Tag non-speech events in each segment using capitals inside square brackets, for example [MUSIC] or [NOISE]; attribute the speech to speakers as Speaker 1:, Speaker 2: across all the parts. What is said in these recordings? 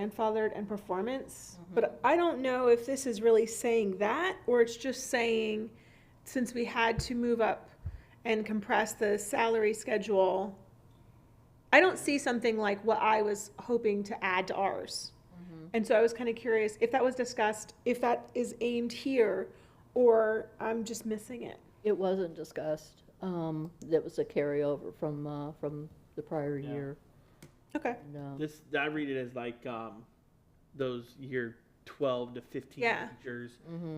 Speaker 1: grandfathered and performance, but I don't know if this is really saying that, or it's just saying, since we had to move up and compress the salary schedule, I don't see something like what I was hoping to add to ours. And so I was kind of curious if that was discussed, if that is aimed here, or I'm just missing it.
Speaker 2: It wasn't discussed. Um, that was a carryover from, uh, from the prior
Speaker 3: Yeah.
Speaker 2: year.
Speaker 1: Okay,
Speaker 2: And, uh,
Speaker 3: This I read it as like um, those year twelve to fifteen
Speaker 1: Yeah.
Speaker 3: teachers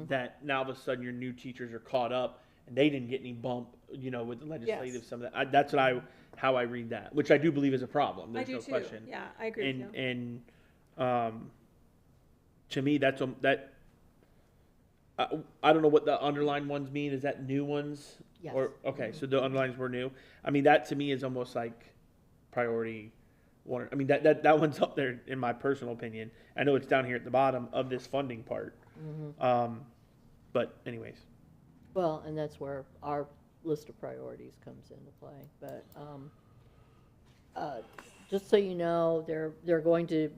Speaker 3: that now all of a sudden your new teachers are caught up and they didn't get any bump, you know, with the legislative
Speaker 1: Yes.
Speaker 3: some of that. I, that's what I how I read that, which I do believe is a problem.
Speaker 1: I
Speaker 3: There's
Speaker 1: do
Speaker 3: no
Speaker 1: too.
Speaker 3: question.
Speaker 1: Yeah, I agree with
Speaker 3: and
Speaker 1: you.
Speaker 3: and um, to me that's um, that. I, I don't know what the underlined ones mean. Is that new ones?
Speaker 2: Yes. Mm-hmm.
Speaker 3: Or okay, so the underlines were new. I mean, that to me is almost like priority one. I mean, that, that that one's [LAUGHS] up there in my personal opinion. I know it's down here at the bottom of this funding part.
Speaker 2: Mm-hmm.
Speaker 3: Um, but anyways,
Speaker 2: Well, and that's where our list of priorities comes into play, but, um, uh, just so you know, they're, they're going to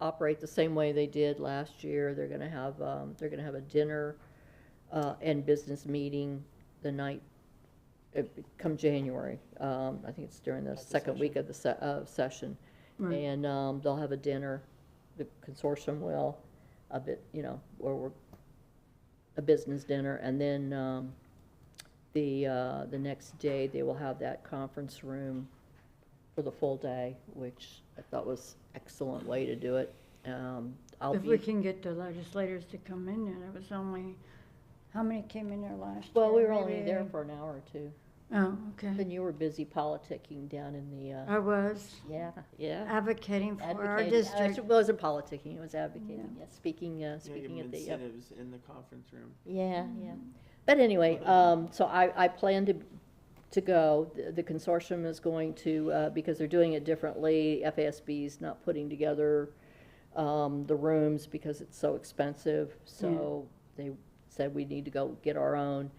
Speaker 2: operate the same way they did last year. They're gonna have, um, they're gonna have a dinner, uh, and business meeting the night, it, come January. Um, I think it's during the second week of the se- of session. And, um, they'll have a dinner, the consortium will, a bit, you know, where we're a business dinner, and then um, the, uh, the next day, they will have that conference room for the full day, which I thought was excellent way to do it. Um, I'll
Speaker 4: If we
Speaker 2: be,
Speaker 4: can get the legislators to come in, and it was only, how many came in there last year?
Speaker 2: well, we were only there
Speaker 4: Maybe-
Speaker 2: for uh, an hour or two.
Speaker 4: Oh, okay.
Speaker 2: Then you were busy politicking down in the, uh,
Speaker 4: I was
Speaker 2: yeah, yeah.
Speaker 4: advocating for our
Speaker 2: advocating. Uh,
Speaker 4: district.
Speaker 2: It wasn't politicking, it was advocating,
Speaker 4: Yeah.
Speaker 2: yeah, speaking, uh, speaking at the. uh,
Speaker 3: in the conference room.
Speaker 2: Yeah, yeah. But anyway, um, so I, I plan to, to go. The- The consortium is going to, uh, because they're doing it differently, FASB's not putting together, um, the rooms because it's so expensive. So they said we need to go get our own.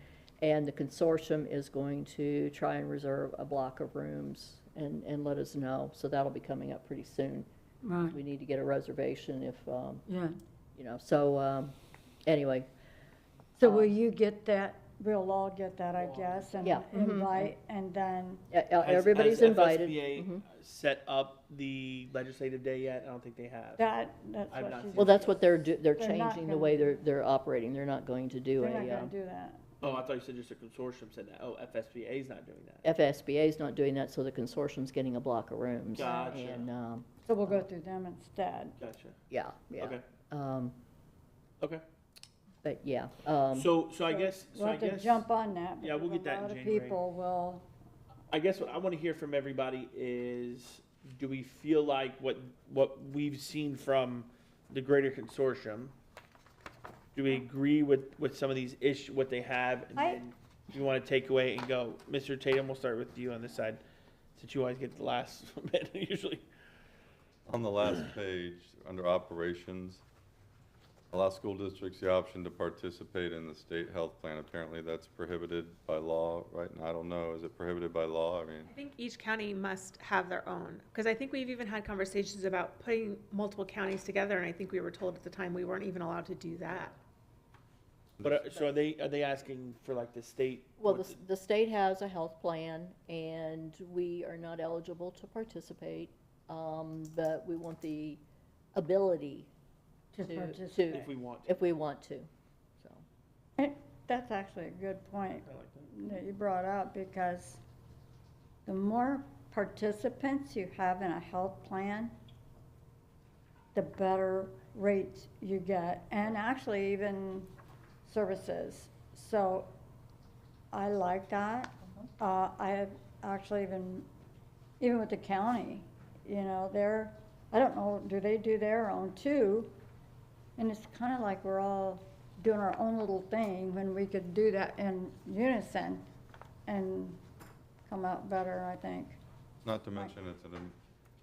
Speaker 2: And the consortium is going to try and reserve a block of rooms and, and let us know. So that'll be coming up pretty soon.
Speaker 4: Right,
Speaker 2: We need to get a reservation if, um,
Speaker 4: yeah.
Speaker 2: you know, so, um, anyway,
Speaker 4: So will you get that, Uh, we'll all get that, I guess, and
Speaker 2: Yeah. Mm-hmm.
Speaker 4: invite, and then,
Speaker 2: e- e- everybody's invited. Mhm.
Speaker 3: set up the legislative day yet? I don't think they have.
Speaker 4: that, that's
Speaker 3: I've
Speaker 4: what
Speaker 3: not
Speaker 4: she's.
Speaker 3: seen
Speaker 2: Well, that's what they're, do- they're
Speaker 4: They're not
Speaker 2: changing the
Speaker 4: gonna-
Speaker 2: way they're, they're operating. They're not going to do
Speaker 4: They're
Speaker 2: a,
Speaker 4: not
Speaker 2: um,
Speaker 4: gonna do that.
Speaker 3: Oh, I thought you said just a consortium said that. Oh, FSBA is not doing that.
Speaker 2: FSBA's not doing that, so the consortium's getting a block of rooms.
Speaker 3: Gotcha.
Speaker 2: And, um,
Speaker 4: So we'll go through them instead.
Speaker 3: Gotcha.
Speaker 2: yeah, yeah.
Speaker 3: Okay.
Speaker 2: Um,
Speaker 3: Okay.
Speaker 2: but yeah, um,
Speaker 3: So, so I guess, so
Speaker 4: We'll
Speaker 3: I
Speaker 4: have to
Speaker 3: guess,
Speaker 4: jump on that.
Speaker 3: Yeah, we'll get
Speaker 4: because
Speaker 3: that in
Speaker 4: A lot of
Speaker 3: January.
Speaker 4: people will,
Speaker 3: I guess what I want to hear from everybody is, do we feel like what, what we've seen from the greater consortium? Do we agree with, with some of these ish, what they have? And
Speaker 4: I-
Speaker 3: then you want to take away and go, Mr. Tatum, we'll start with you on this side, since you always get the last [LAUGHS] bit usually.
Speaker 5: On the last page, under operations, allow school districts the option to participate in the state health plan. Apparently, that's prohibited by law, right? And I don't know, is it prohibited by law? I mean,
Speaker 1: I think each county must have their own, because I think we've even had conversations about putting multiple counties together, and I think we were told at the time we weren't even allowed to do that.
Speaker 3: But, uh, so are they, are they asking for like the state?
Speaker 2: well,
Speaker 3: what
Speaker 2: the, s- the state has a health plan and we are not eligible to participate. Um, but we want the ability
Speaker 4: to
Speaker 2: To-
Speaker 4: participate.
Speaker 3: If we want to.
Speaker 2: if we want to, so.
Speaker 4: Eh, That's actually a good point
Speaker 3: I like that.
Speaker 4: that you brought up, because the more participants you have in a health plan, the better rates you get, and actually even services. So I like that. Uh, I have actually even, even with the county, you know, they're, I don't know, do they do their own too? And it's kind of like we're all doing our own little thing when we could do that in unison and come out better, I think.
Speaker 5: not to mention it's an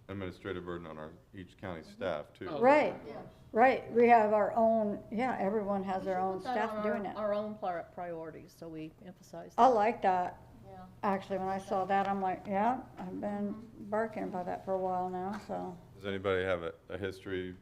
Speaker 5: administrative burden on our, each county staff, too.
Speaker 3: Oh.
Speaker 4: Right, right, we have our own, yeah, everyone has their own staff doing it.
Speaker 2: Our own pri- priorities, so we emphasize that.
Speaker 4: I like that,
Speaker 2: Yeah.
Speaker 4: actually, when I saw that, I'm like,
Speaker 2: Mm-hmm.
Speaker 4: yeah, I've been barking about that for a while now, so.
Speaker 5: Does anybody have a, a history